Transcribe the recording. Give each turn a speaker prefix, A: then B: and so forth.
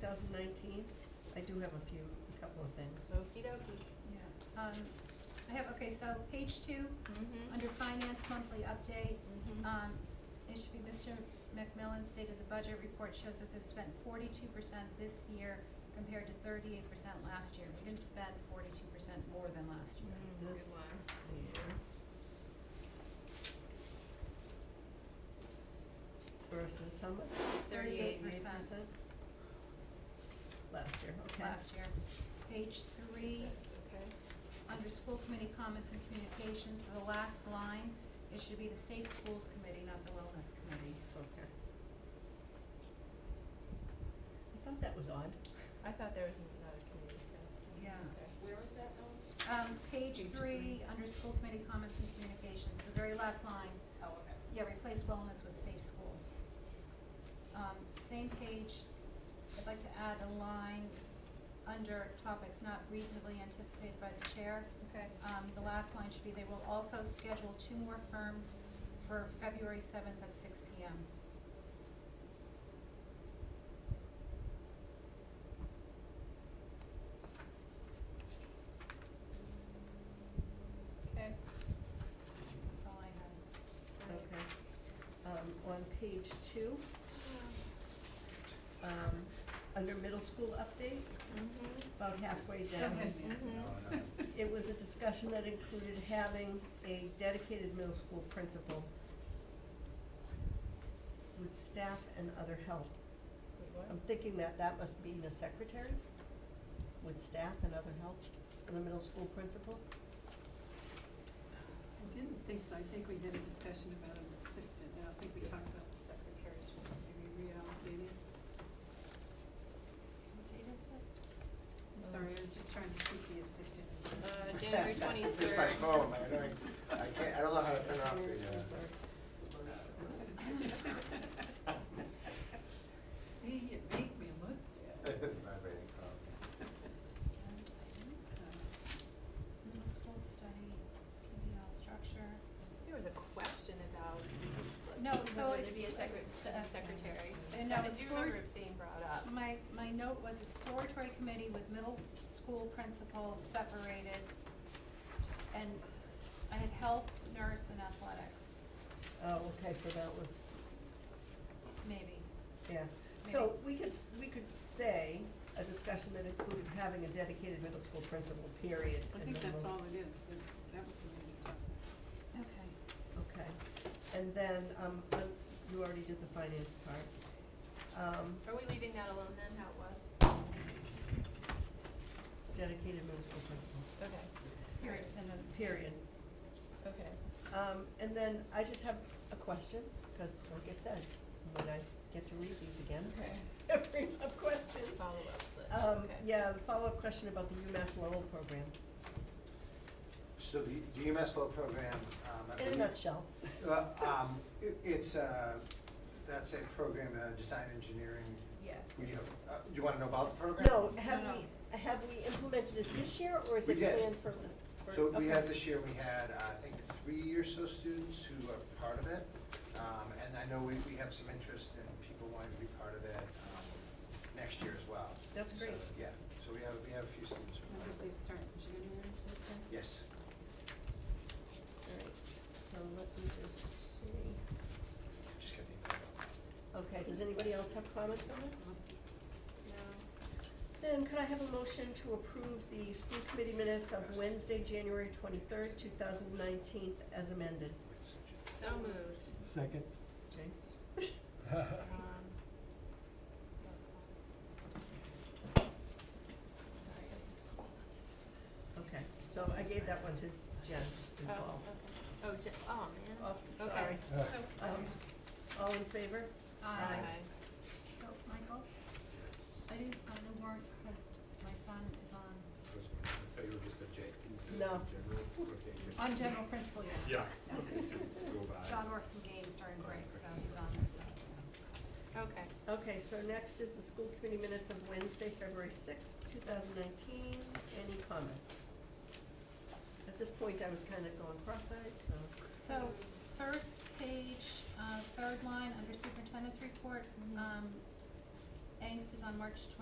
A: thousand nineteen. I do have a few, a couple of things.
B: Okie dokie.
C: Yeah, um, I have, okay, so page two,
B: Mm-hmm.
C: under finance monthly update,
B: Mm-hmm.
C: um, it should be Mr. McMillan stated the budget report shows that they've spent forty-two percent this year compared to thirty-eight percent last year. We didn't spend forty-two percent more than last year.
B: Mm-hmm.
A: This year versus how much?
C: 38%.
A: 38%? Last year,
B: Mm-hmm.
A: okay.
C: Last year. Page three,
B: okay.
C: under school committee comments and communications, the last line, it should be the Safe Schools Committee, not the Wellness Committee.
A: Okay. I thought that was odd.
B: I thought there was another community sense.
C: Yeah.
B: Okay. Where was that now?
C: Um, page
B: Page
C: three, under school committee comments and communications, the very last line,
B: Oh, okay.
C: yeah, replace wellness with safe schools. Um, same page, I'd like to add a line under topics not reasonably anticipated by the chair.
B: Okay.
C: Um, the last line should be, they will also schedule two more firms for February seventh at six P M.
B: Okay.
C: That's all I have.
A: Okay. Um, on page two, um, under middle school update,
B: Mm-hmm.
A: about halfway down. It was a discussion that included having a dedicated middle school principal with staff and other help.
B: Wait, what?
A: I'm thinking that that must mean a secretary with staff and other help for the middle school principal.
D: I didn't think so, I think we did a discussion about an assistant, I don't think we talked about the secretaries, maybe reallocating.
C: What date is this?
D: I'm sorry, I was just trying to keep the assistant.
B: Uh, January twenty-third.
E: It's my phone, man, I, I can't, I don't know how to turn off uh, uh,
D: See, you make me look
E: the, uh.
D: bad.
E: vibrating phone.
C: And I think
D: Uh,
C: Middle school study, PBL structure.
B: There was a question about the split.
C: No, so
B: whether
C: it's-
B: to be a secret, se- a secretary.
C: And no,
B: I
C: it's
B: do
C: for-
B: remember it being brought up.
C: My, my note was exploratory committee with middle school principals separated, and I had health, nurse, and athletics,
A: Oh, okay, so that was,
C: maybe.
A: yeah. So
C: Maybe.
A: we could, s- we could say a discussion that included having a dedicated middle school principal, period.
D: I
A: and
D: think
A: then
D: that's
A: we'll-
D: all it is, that- that was the major topic.
C: Okay.
A: Okay, and then, um, uh, you already did the finance part. Um,
B: Are we leaving that alone then, how it was?
A: dedicated middle school principal,
B: Okay,
C: Period, and then,
A: period.
B: okay.
A: Um, and then I just have a question, cause like I said, when I get to read these again,
B: Okay.
A: it brings up questions.
B: Follow up list,
A: Um,
B: okay.
A: yeah, the follow-up question about the UMass Lowell program,
E: So the, E the UMass Law Program, um, I
A: in a
E: believe.
A: nutshell.
E: Uh, um, it, it's, uh, that's a program, uh, design engineering,
B: Yes.
E: we, do- uh, do you wanna know about the program?
A: No, have
C: No, no.
A: we, have we implemented it this year, or is
E: We
A: it
E: did.
A: planned for, the- for-
E: So we had
A: okay.
E: this year, we had, uh, I think, three or so students who are part of it. Um, and I know we, we have some interest in people wanting to be part of it, um, next year as well.
A: That's
E: So,
A: great.
E: Yeah, so we have, we have a few students who are
D: I
E: part
D: think
E: of
D: they
E: it.
D: start in January, okay?
E: Yes.
A: Alright, so let me just see.
E: Just get the email.
A: Okay, does anybody else have comments on this?
D: Awesome.
A: Then could I have a motion to approve the school committee minutes of Wednesday, January twenty-third, two thousand nineteen, as amended?
E: with such
B: So moved.
F: Second.
A: James?
B: Um, Sorry, I was holding on to this.
A: Okay, so I gave that one to Jen and Paul.
B: Oh, okay. Oh, j- oh, man.
A: Oh,
B: Okay.
A: sorry.
F: Uh,
A: Um, all in favor?
C: Aye.
A: Aye.
C: so, Michael, I didn't sign the warrant because my son is on,
G: I thought you were just objecting to
A: No.
G: the general, okay, good.
C: on general principal yet.
G: Yeah, okay, just go by.
C: John works some games during break, so he's on this side.
B: Okay.
A: Okay, so next is the school committee minutes of Wednesday, February sixth, two thousand nineteen. Any comments? At this point, I was kind of going cross-eyed, so,
C: So, first page, uh, third line, under superintendent's report, um, angst is on March twenty.